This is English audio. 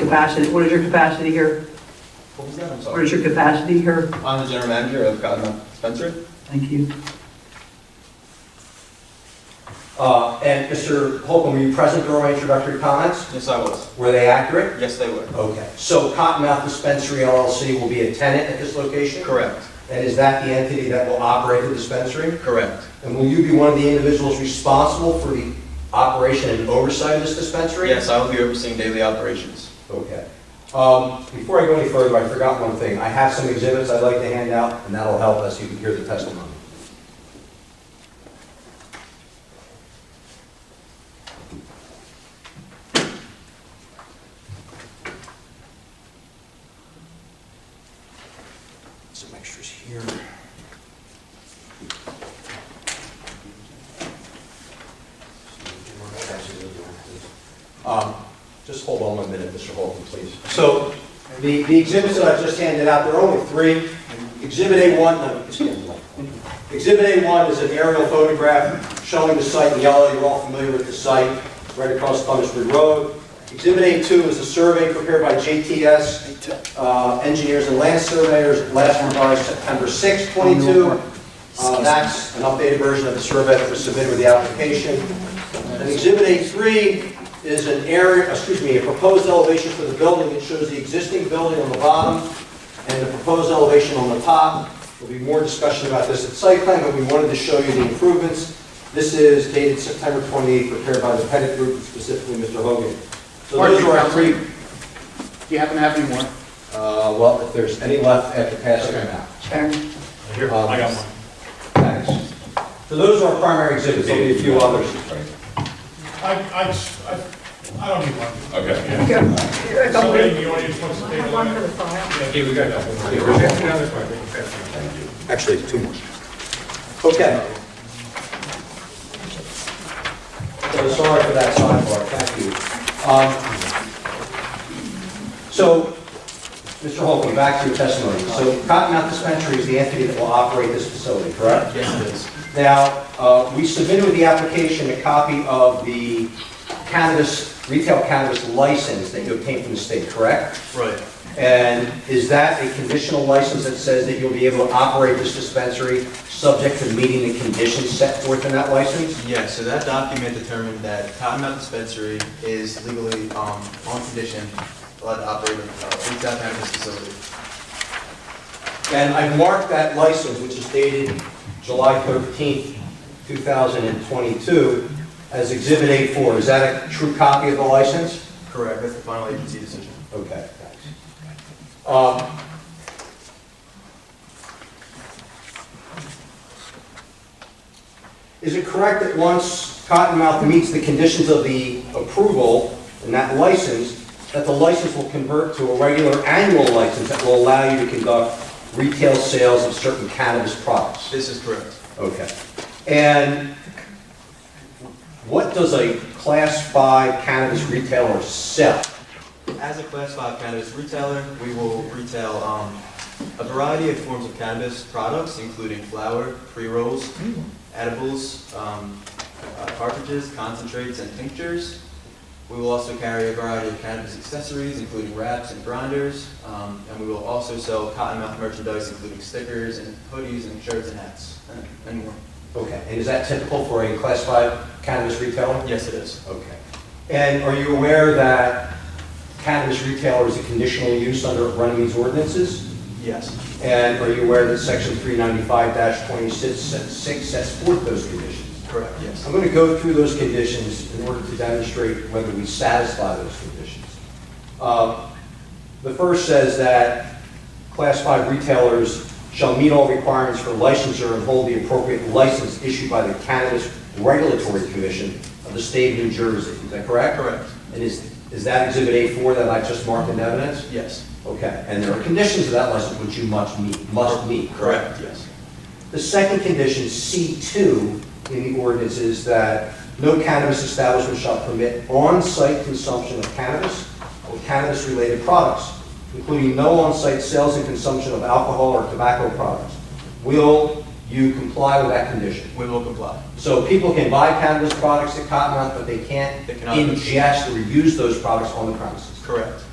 capacity, what is your capacity here? What was that? I'm What is sorry. your capacity here? I'm the general manager of Cottonmouth Dispensary. Thank you. Uh, And Mr. Holcomb, were you present during my introductory comments? Yes, I was. Were they accurate? Yes, they were. Okay. So Cottonmouth Dispensary LLC will be a tenant at this location? Correct. And is that the entity that will operate the dispensary? Correct. And will you be one of the individuals responsible for the operation and oversight of this dispensary? Yes, I will be overseeing daily operations. Okay. Um, Before I go any further, I forgot one thing. I have some exhibits I'd like to hand out, and that'll help us, you can hear the testimony. Some extras here. Um, Just hold on one minute, Mr. Holcomb, please. So the the exhibits that I've just handed out, there are only three. Exhibit A1, no, it's getting light. Exhibit A1 is an aerial photograph showing the site in yellow. You're all familiar with the site, right across Thomasford Road. Exhibit A2 is a survey prepared by JTS uh, Engineers and Land Surveyors, last revised September 6, 22. Uh, That's an updated version of the survey that was submitted with the application. And Exhibit A3 is an area, excuse me, a proposed elevation for the building. It shows the existing building on the bottom and the proposed elevation on the top. There'll be more discussion about this at site plan, but we wanted to show you the improvements. This is dated September 28, prepared by the Pettit Group, specifically Mr. Hogan. So those are our three. Do you happen to have any more? Uh, Well, if there's any left after passing them out. Sharon? Here, I got one. Thanks. So those are our primary exhibits, there'll be a few others. I, I, I- I don't need one. Okay. Okay. A couple Somebody in of- the audience wants to take Have a one for look. the file. Yeah, we got that one. Actually, two more. Okay. So sorry for that sidebar, thank you. Um, So, Mr. Holcomb, back to your testimony. So Cottonmouth Dispensary is the entity that will operate this facility, correct? Yes, it is. Now, uh, we submitted with the application a copy of the cannabis, retail cannabis license that you obtained from the state, correct? Right. And is that a conditional license that says that you'll be able to operate this dispensary subject to meeting the conditions set forth in that license? Yeah, so that document determined that Cottonmouth Dispensary is legally, um, on condition, allowed to operate a uh, retail cannabis facility. And I marked that license, which is dated July 13th, 2022, as Exhibit A4. Is that a true copy of the license? Correct, that's the final agency decision. Okay, thanks. Um, Is it correct that once Cottonmouth meets the conditions of the approval and that license, that the license will convert to a regular annual license that will allow you to conduct retail sales of certain cannabis products? This is correct. Okay. And what does a Class 5 cannabis retailer sell? As a Class 5 cannabis retailer, we will retail um, a variety of forms of cannabis products, including flower, pre-rolls, edibles, um, uh, cartridges, concentrates, and tinctures. We will also carry a variety of cannabis accessories, including wraps and grinders, um, and we will also sell cottonmouth merchandise, including stickers and hoodies and shirts and hats, and- and more. Okay, and is that typical for a Class 5 cannabis retailer? Yes, it is. Okay. And are you aware that cannabis retailer is a conditional use under Runamede's ordinances? Yes. And are you aware that Section 395-26 sets- sets forth those conditions? Correct, yes. I'm going to go through those conditions in order to demonstrate whether we satisfy those conditions. Uh, The first says that Class 5 retailers shall meet all requirements for licensure and hold the appropriate license issued by the Cannabis Regulatory Commission of the state of New Jersey. Is that correct? Correct. And is, is that Exhibit A4 that I just marked in evidence? Yes. Okay, and there are conditions of that license which you must meet, must meet, correct? Yes. The second condition, C2, in the ordinance is that no cannabis establishment shall permit on-site consumption of cannabis or cannabis-related products, including no on-site sales and consumption of alcohol or tobacco products. Will you comply with that condition? We will comply. So people can buy cannabis products at Cottonmouth, but they can't They cannot. ingest or use those products on the premises. Correct.